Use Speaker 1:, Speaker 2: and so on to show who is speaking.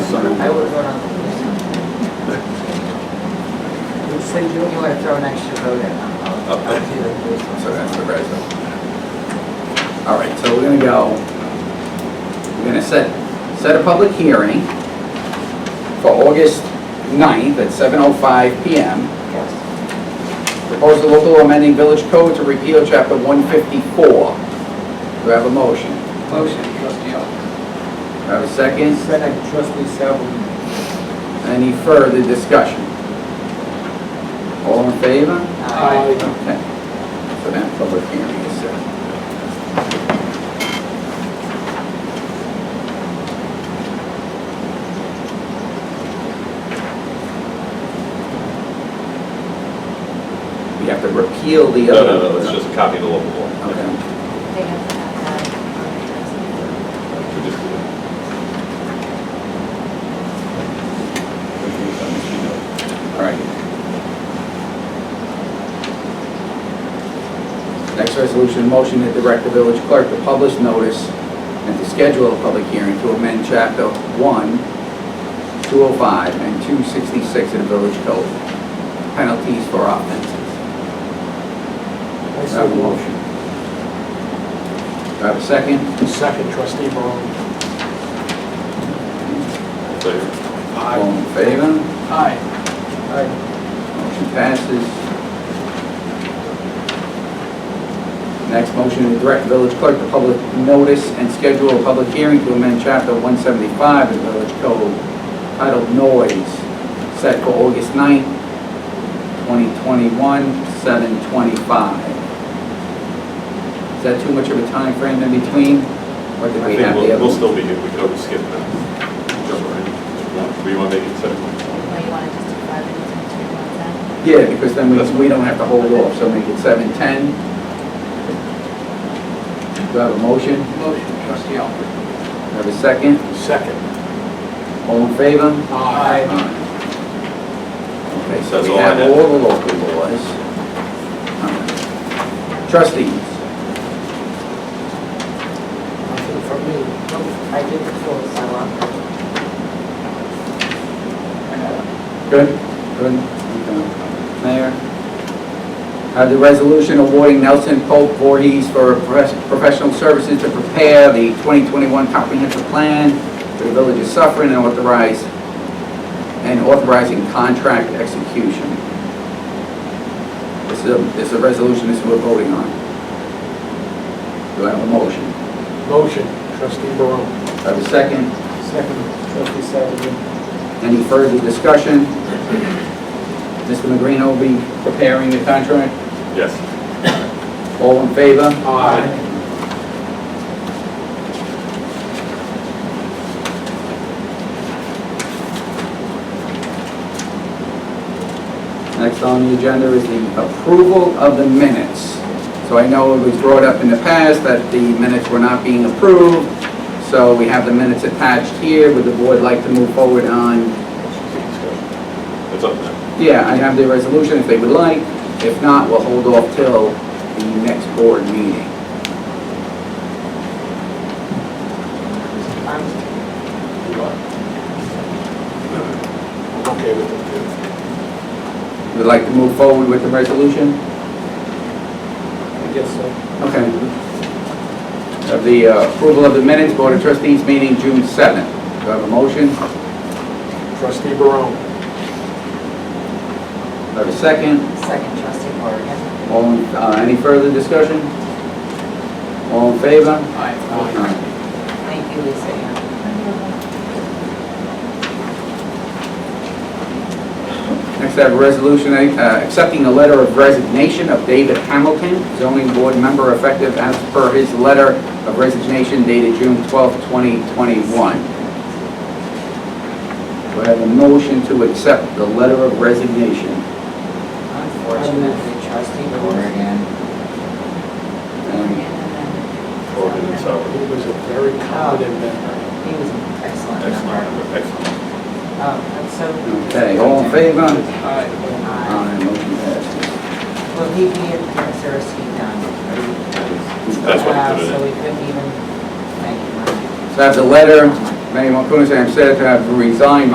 Speaker 1: I would vote on the police. So you want to throw an extra vote in? I'll- I'll
Speaker 2: Okay.
Speaker 1: do the police one.
Speaker 2: So that's the resume. All right, so we're gonna go, we're gonna set, set a public hearing for August 9th at 7:05 PM.
Speaker 1: Yes.
Speaker 2: Propose the local law amending village code to repeal chapter 154. Do I have a motion?
Speaker 3: Motion, trustee Elton.
Speaker 2: Do I have a second?
Speaker 3: Second, trustee Calhoun.
Speaker 2: Any further discussion? All in favor?
Speaker 1: Aye.
Speaker 2: Okay. So that public hearing is set. We have to repeal the
Speaker 4: No,
Speaker 2: other.
Speaker 4: no, no, it's just a copy of the local law.
Speaker 2: Okay.
Speaker 5: They have um, to have
Speaker 4: We just did it.
Speaker 2: All right. Next resolution, motion to direct the village clerk to publish notice and to schedule a public hearing to amend chapter 1, 205, and 266 of the village code, penalties for offenses.
Speaker 3: I
Speaker 2: Do I have a motion? Do I have a second?
Speaker 3: Second, trustee Morrow.
Speaker 4: So
Speaker 2: All in favor?
Speaker 3: Aye. Aye.
Speaker 2: Motion passes. Next motion, to direct village clerk to public notice and schedule a public hearing to amend chapter 175 of the village code titled noise, set for August 9th, 2021, 7:25. Is that too much of a time frame in between? Or did
Speaker 4: I
Speaker 2: we
Speaker 4: think
Speaker 2: have the
Speaker 4: we'll,
Speaker 2: other?
Speaker 4: we'll still be here, we could always skip that. Jump right in. Do you want to make it seven?
Speaker 5: that. Well, you want to just do five minutes and two on that?
Speaker 2: Yeah, because then we, we don't have to hold off, so make it 7:10. Do I have a motion?
Speaker 3: Motion, trustee Elton.
Speaker 2: Have a second?
Speaker 3: Second.
Speaker 2: All in favor?
Speaker 3: Aye.
Speaker 2: Okay, so
Speaker 4: That's
Speaker 2: we
Speaker 4: all I
Speaker 2: have
Speaker 4: have.
Speaker 2: all the local laws. Trustees,
Speaker 1: Nothing from me. Nope. I did the full sidewalk.
Speaker 2: good? Good. Mayor? Uh, the resolution awarding Nelson Pope Voorhees for pres- professional services to prepare the 2021 comprehensive plan for the village of Suffering and authorize, and authorizing contract execution. This is, a- this is a resolution this we're voting on. Do I have a motion?
Speaker 3: Motion, trustee Morrow.
Speaker 2: Do I have a second?
Speaker 3: Second, trustee Calhoun.
Speaker 2: Any further discussion? Mr. Magrino will be preparing the contract.
Speaker 4: Yes,
Speaker 2: All in favor?
Speaker 3: Aye.
Speaker 2: Next on the agenda is the approval of the minutes. So I know it was brought up in the past that the minutes were not being approved, so we have the minutes attached here. Would the board like to move forward on,
Speaker 4: it's up now.
Speaker 2: yeah, I have the resolution if they would like. If not, we'll hold off till the next board meeting.
Speaker 1: I'm-
Speaker 3: I'm okay with it,
Speaker 2: Would like to move forward with the resolution?
Speaker 3: too. I guess so.
Speaker 2: Okay. Of the uh, approval of the minutes, Board of Trustees meeting June 7th. Do I have a motion? Do
Speaker 3: Trustee Morrow.
Speaker 2: I have a second?
Speaker 1: Second trustee Morgan.
Speaker 2: All, in- uh, any further discussion? All in favor?
Speaker 3: Aye.
Speaker 1: Thank you, Lisa Ann.
Speaker 2: Next, I have a resolution uh, accepting a letter of resignation of David Hamilton, zoning board member effective as per his letter of resignation dated June 12th, 2021. Do I have a motion to accept the letter of resignation?
Speaker 1: Unfortunately, trustee Morgan.
Speaker 2: And
Speaker 4: Organ and Sauer.
Speaker 3: He was a very competent member.
Speaker 1: He was an excellent member.
Speaker 4: Excellent, excellent.
Speaker 1: Oh, that's so.
Speaker 2: Okay, all in favor?
Speaker 3: Aye.
Speaker 1: Aye.
Speaker 2: Aye, motion passes.
Speaker 1: Will he be in Paris or is he done?
Speaker 4: That's what
Speaker 1: Wow,
Speaker 4: he put it
Speaker 1: So
Speaker 4: in.
Speaker 1: we couldn't even, thank you, Mike.
Speaker 2: So I have the letter, Mayor Marcoonis, I am sad to have resigned